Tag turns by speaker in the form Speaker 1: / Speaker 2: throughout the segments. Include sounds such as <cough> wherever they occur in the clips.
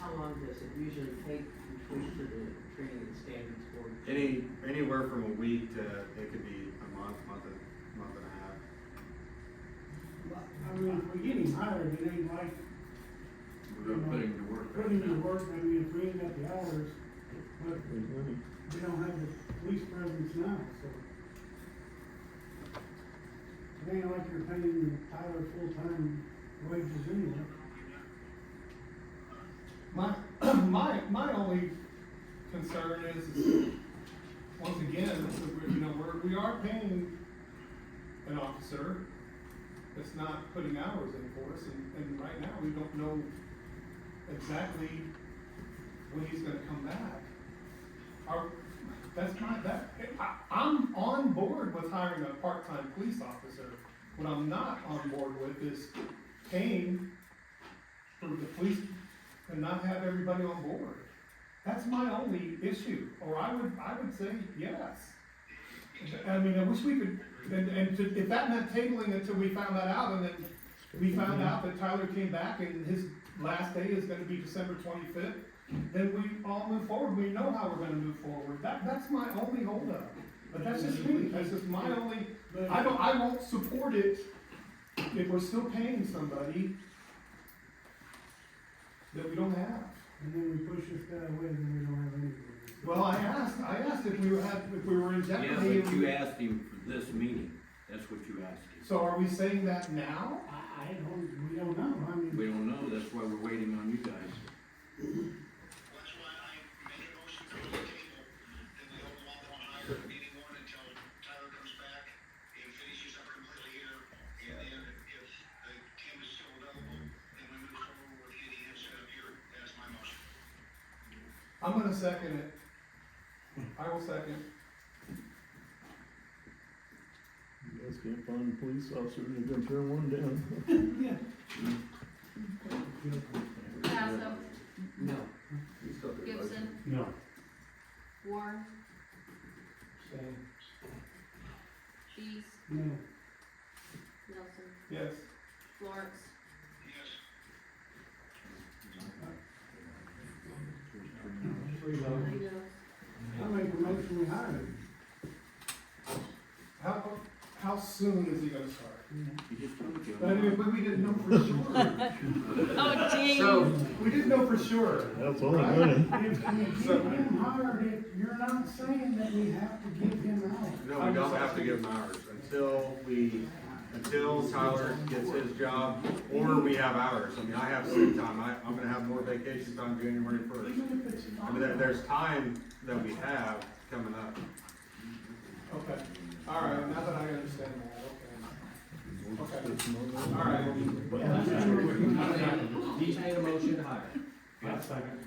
Speaker 1: how long does it usually take to switch to the training and standards board?
Speaker 2: Any, anywhere from a week to, it could be a month, month and, month and a half.
Speaker 3: I mean, if we get him hired, it ain't like
Speaker 4: We're not putting the work. right
Speaker 3: putting in
Speaker 4: now.
Speaker 3: work, I mean, if we ain't got the hours, but we don't have the police presence now, so. It ain't like you're paying Tyler full-time wages anyway.
Speaker 5: My, <clears throat> my, my only concern is, is, once again, is that we're, you know, we're, we are paying an officer that's not putting hours in for us, and, and right now, we don't know exactly when he's gonna come back. Our, that's my, that, I, I'm on board with hiring a part-time police officer. What I'm not on board with is paying for the police and not have everybody on board. That's my only issue, or I would, I would say yes. I mean, I wish we could, and, and to- if that meant tabling until we found that out, and then we found out that Tyler came back and his last day is gonna be December twenty-fifth, then we all move forward, we know how we're gonna move forward, that, that's my only holdup. But that's just me, that's just my only,
Speaker 3: But-
Speaker 5: I don't, I won't support it if we're still paying somebody that we don't have.
Speaker 3: And then we push this guy away, and then we don't have anybody.
Speaker 5: Well, I asked, I asked if we had, if we were in
Speaker 4: Yeah,
Speaker 5: jeopardy.
Speaker 4: but you asked him for this meeting, that's what you asked him.
Speaker 5: So are we saying that now?
Speaker 3: I, I don't, we don't know, I mean.
Speaker 4: We don't know, that's why we're waiting on you guys.
Speaker 6: That's why I made a motion to the table, that we hold off on hiring anyone until Tyler comes back and finishes up completely here. And then if the team is still available, then we move forward with getting him set up here. That's my motion.
Speaker 5: I'm gonna second it. I will second.
Speaker 7: You guys can't find a police officer, you're gonna turn one down.
Speaker 3: Yeah.
Speaker 8: Passo,
Speaker 1: No.
Speaker 8: Gibson,
Speaker 3: No.
Speaker 8: Warren,
Speaker 5: Shane.
Speaker 8: Dees,
Speaker 3: No.
Speaker 8: Nelson,
Speaker 5: Yes.
Speaker 8: Lawrence,
Speaker 6: Yes.
Speaker 3: Three dollars.
Speaker 8: Reno,
Speaker 3: I make a motion we hire him.
Speaker 5: How, how soon is he gonna start?
Speaker 4: You just told him.
Speaker 5: But I mean, but we didn't know for sure.
Speaker 9: Oh, gee.
Speaker 5: So, we didn't know for sure.
Speaker 7: That's all I'm gonna.
Speaker 3: If we get him hired, it, you're not saying that we have to give him out.
Speaker 2: No, we don't have to give them hours until we, until Tyler gets his job or we have hours. I mean, I have sick time. I, I'm gonna have more vacation time January first.
Speaker 3: Even if it's
Speaker 2: I
Speaker 3: not.
Speaker 2: mean, there, there's time that we have coming up.
Speaker 5: Okay, all right, now that I understand that, okay. Okay, all right.
Speaker 10: He's made a motion to hire.
Speaker 4: Yeah.
Speaker 10: second.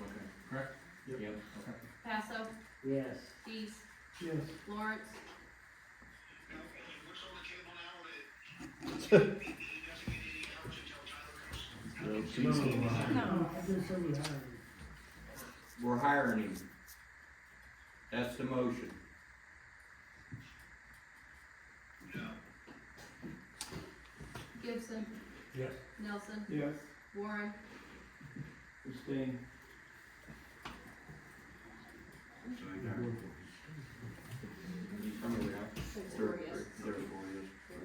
Speaker 4: Okay. Correct? Yep. Okay.
Speaker 8: Passo,
Speaker 1: Yes.
Speaker 8: Dees,
Speaker 3: Yes.
Speaker 8: Lawrence,
Speaker 6: Now, what's on the table now that he he doesn't get any hours until Tyler comes?
Speaker 3: No, I just said we hire him.
Speaker 4: We're hiring him. That's the motion.
Speaker 8: Gibson.
Speaker 10: Yes.
Speaker 8: Nelson,
Speaker 5: Yes.
Speaker 8: Warren,
Speaker 4: So I got it.
Speaker 2: I mean, we have-
Speaker 8: six
Speaker 4: There-
Speaker 8: four yes.
Speaker 4: there- Therefore, yes.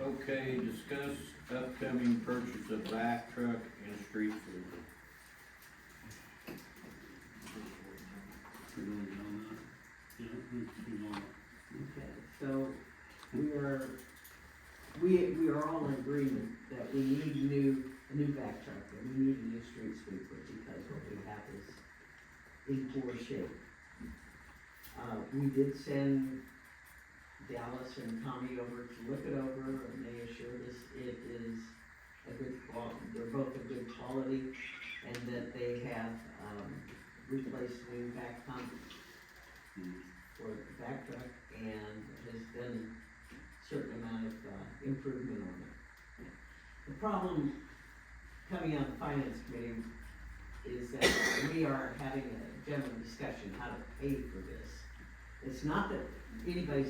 Speaker 4: Okay, discuss upcoming purchase of back truck and street sweeper.
Speaker 1: Okay, so we are, we, we are all in agreement that we need new, a new back truck, and we need a new street sweeper, because what we have is in poor shape. Uh, we did send Dallas and Tommy over to look it over, and they assured us it is a good qual, they're both of good quality, and that they have, um, replaced the back pump for the back truck and has done certain amount of, uh, improvement on it. The problem coming out of the finance committee is that we are having a general discussion how to pay for this. It's not that anybody's